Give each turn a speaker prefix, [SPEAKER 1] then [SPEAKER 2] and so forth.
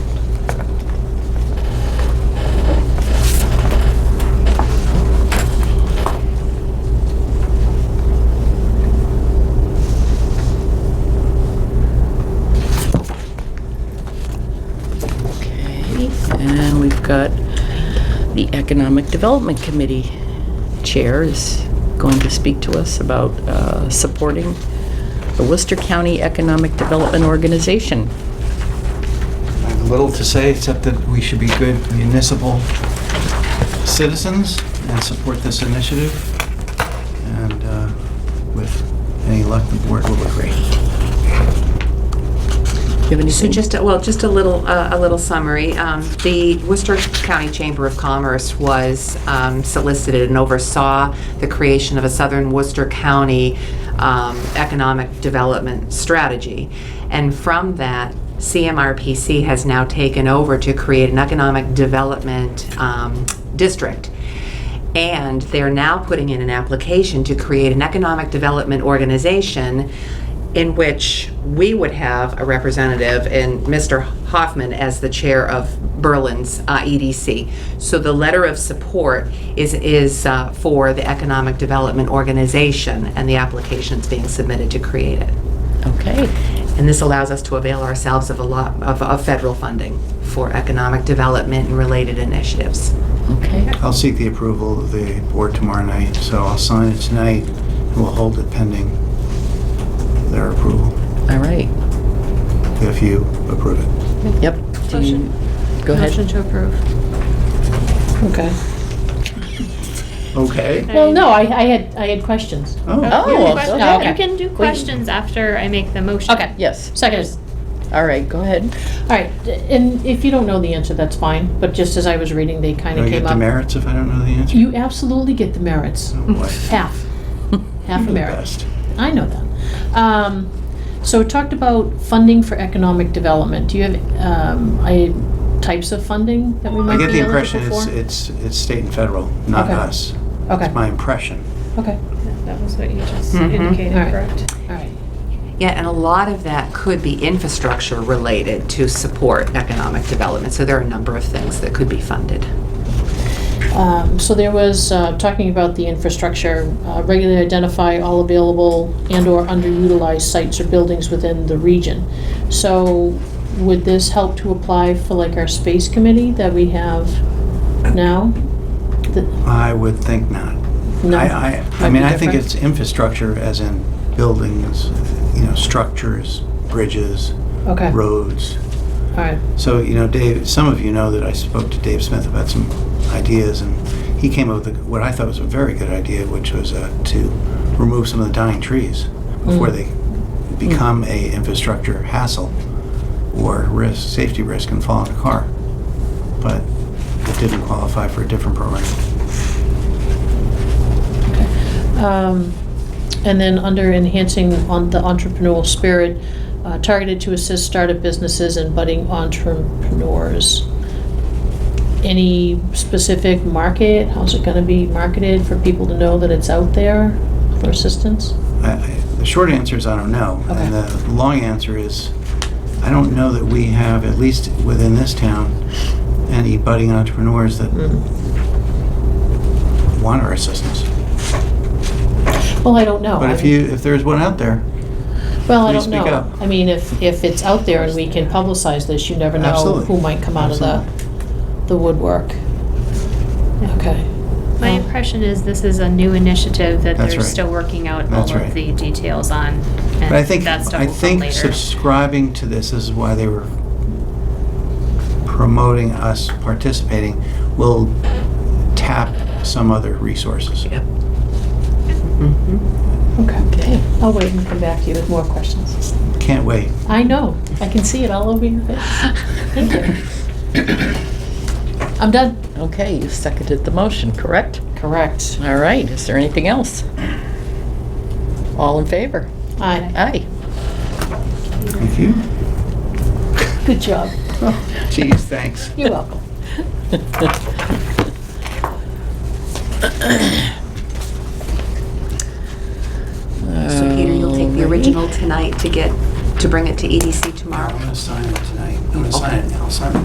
[SPEAKER 1] And we've got the Economic Development Committee Chair is going to speak to us about uh, supporting the Worcester County Economic Development Organization.
[SPEAKER 2] I have little to say, except that we should be good municipal citizens and support this initiative. And uh, with any luck, the board will agree.
[SPEAKER 1] Do you have
[SPEAKER 3] So
[SPEAKER 1] anything?
[SPEAKER 3] just, a- well, just a little, uh, a little summary. Um, The Worcester County Chamber of Commerce was um, solicited and oversaw the creation of a Southern Worcester County um, Economic Development Strategy. And from that, CMRPC has now taken over to create an Economic Development um, District. And they're now putting in an application to create an economic development organization in which we would have a representative and Mr. Hoffman as the chair of Berlin's uh, EDC. So the letter of support is, is uh, for the Economic Development Organization and the application's being submitted to create it.
[SPEAKER 1] Okay,
[SPEAKER 3] And this allows us to avail ourselves of a lot, of, of federal funding for economic development and related initiatives.
[SPEAKER 1] okay.
[SPEAKER 2] I'll seek the approval of the board tomorrow night, so I'll sign it tonight, and we'll hold it pending their approval,
[SPEAKER 1] All right.
[SPEAKER 2] if you approve it.
[SPEAKER 1] Yep. Do you-
[SPEAKER 4] Motion.
[SPEAKER 1] Go
[SPEAKER 4] Motion
[SPEAKER 1] ahead.
[SPEAKER 4] to approve.
[SPEAKER 5] Okay.
[SPEAKER 2] Okay.
[SPEAKER 6] Well, no, I, I had, I had questions.
[SPEAKER 2] Oh,
[SPEAKER 1] Oh,
[SPEAKER 4] Question-
[SPEAKER 6] okay.
[SPEAKER 4] You can do questions after I make the motion.
[SPEAKER 6] Okay.
[SPEAKER 1] Yes.
[SPEAKER 6] Seconded.
[SPEAKER 1] All right, go ahead.
[SPEAKER 6] All right, and if you don't know the answer, that's fine, but just as I was reading, they kind
[SPEAKER 2] do
[SPEAKER 6] of
[SPEAKER 2] I
[SPEAKER 6] came
[SPEAKER 2] get the
[SPEAKER 6] up.
[SPEAKER 2] merits if I don't know the answer?
[SPEAKER 6] You absolutely get the merits.
[SPEAKER 2] Oh, boy.
[SPEAKER 6] Half. Half a
[SPEAKER 2] The
[SPEAKER 6] merit.
[SPEAKER 2] best.
[SPEAKER 6] I know that. Um, so it talked about funding for economic development. Do you have, um, I, types of funding that we
[SPEAKER 2] I
[SPEAKER 6] might be
[SPEAKER 2] get the
[SPEAKER 6] eligible
[SPEAKER 2] impression
[SPEAKER 6] for?
[SPEAKER 2] it's, it's, it's state and federal, not
[SPEAKER 6] Okay.
[SPEAKER 2] us. It's
[SPEAKER 6] Okay,
[SPEAKER 2] my impression.
[SPEAKER 6] okay,
[SPEAKER 4] That was what you just
[SPEAKER 2] Mm-hmm.
[SPEAKER 3] Mhm.
[SPEAKER 4] indicated,
[SPEAKER 6] All right.
[SPEAKER 4] correct?
[SPEAKER 6] all right.
[SPEAKER 3] Yeah, and a lot of that could be infrastructure related to support economic development. So there are a number of things that could be funded.
[SPEAKER 6] Um, So there was, uh, talking about the infrastructure, uh, regularly identify all available and/or underutilized sites or buildings within the region. So would this help to apply for like our space committee that we have now? The-
[SPEAKER 2] I would think not.
[SPEAKER 6] No?
[SPEAKER 2] I, I, I
[SPEAKER 6] Might
[SPEAKER 2] mean,
[SPEAKER 6] be
[SPEAKER 2] I think
[SPEAKER 6] different.
[SPEAKER 2] it's infrastructure as in buildings, you know, structures, bridges,
[SPEAKER 6] Okay, all
[SPEAKER 2] roads.
[SPEAKER 6] right,
[SPEAKER 2] So, you know, Dave, some of you know that I spoke to Dave Smith about some ideas, and he came up with what I thought was a very good idea, which was uh, to remove some of the dying trees before
[SPEAKER 6] Mm.
[SPEAKER 2] they become a infrastructure hassle or risk, safety risk, and fall in a car. But it didn't qualify for a different program.
[SPEAKER 6] Um, And then under enhancing on the entrepreneurial spirit, uh, targeted to assist startup businesses and budding entrepreneurs. Any specific market? How's it gonna be marketed for people to know that it's out there for assistance?
[SPEAKER 2] I- I- The short answer is I don't know.
[SPEAKER 6] Okay.
[SPEAKER 2] And the long answer is, I don't know that we have, at least within this town, any budding entrepreneurs that
[SPEAKER 6] Hmm.
[SPEAKER 2] want our assistance.
[SPEAKER 6] Well, I don't know.
[SPEAKER 2] But if
[SPEAKER 6] Oh, I-
[SPEAKER 2] you, if there's one out there,
[SPEAKER 6] Well, I
[SPEAKER 2] please
[SPEAKER 6] don't
[SPEAKER 2] speak
[SPEAKER 6] know.
[SPEAKER 2] up.
[SPEAKER 6] I mean, if, if it's out there and we can publicize this, you never know
[SPEAKER 2] Absolutely.
[SPEAKER 6] who might come out of the, the woodwork. Okay.
[SPEAKER 4] My
[SPEAKER 6] Oh.
[SPEAKER 4] impression is this is a new initiative that
[SPEAKER 2] That's
[SPEAKER 4] they're
[SPEAKER 2] right.
[SPEAKER 4] still working out all
[SPEAKER 2] That's
[SPEAKER 4] of
[SPEAKER 2] right.
[SPEAKER 4] the details on.
[SPEAKER 2] but I think,
[SPEAKER 4] That stuff
[SPEAKER 2] I
[SPEAKER 4] will come
[SPEAKER 2] think
[SPEAKER 4] later.
[SPEAKER 2] subscribing to this is why they were promoting us participating, will tap some other resources.
[SPEAKER 3] Yep.
[SPEAKER 6] Okay.
[SPEAKER 1] Okay.
[SPEAKER 6] I'll wait and come back to you with more questions.
[SPEAKER 2] Can't wait.
[SPEAKER 6] I know, I can see it all over your face. Thank you. I'm done.
[SPEAKER 1] Okay, you seconded the motion, correct?
[SPEAKER 6] Correct.
[SPEAKER 1] All right, is there anything else? All in favor?
[SPEAKER 6] Aye,
[SPEAKER 1] Aye.
[SPEAKER 2] Thank you.
[SPEAKER 6] good job.
[SPEAKER 2] Geez, thanks.
[SPEAKER 6] You're welcome.
[SPEAKER 3] So Peter, you'll take the original tonight to get, to bring it to EDC tomorrow?
[SPEAKER 2] I'm gonna sign it tonight. I'm gonna sign it now. I'll sign it.